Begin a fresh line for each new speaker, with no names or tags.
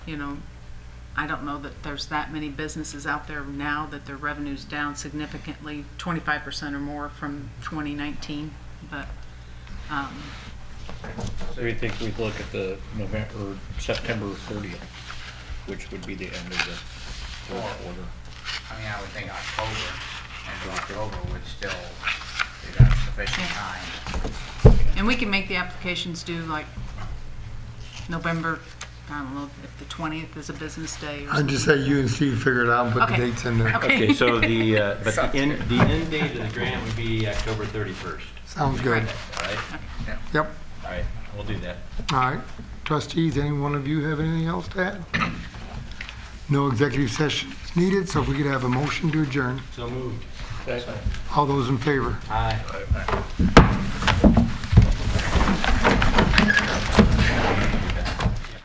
you know, I don't know that there's that many businesses out there now that their revenue's down significantly, 25% or more from 2019, but, um,
So we think we'd look at the November, September thirtieth, which would be the end of the fourth quarter.
I mean, I would think October, end of October would still, they'd have sufficient
Yeah.
time.
and we can make the applications due like November, I don't know, if the 20th is a business day or
I'd
something.
just say you and Steve figure it out and put the
Okay.
dates in there.
Okay.
Okay, so the, uh, but
Sounds
the end, the end date of the grant would be October 31st,
Sounds good.
Right.
all right?
Yep,
All right, we'll do that.
all right. Trustees, any one of you have anything else to add? No executive session is needed, so if we could have a motion to adjourn.
So moved.
All those in favor?
Aye.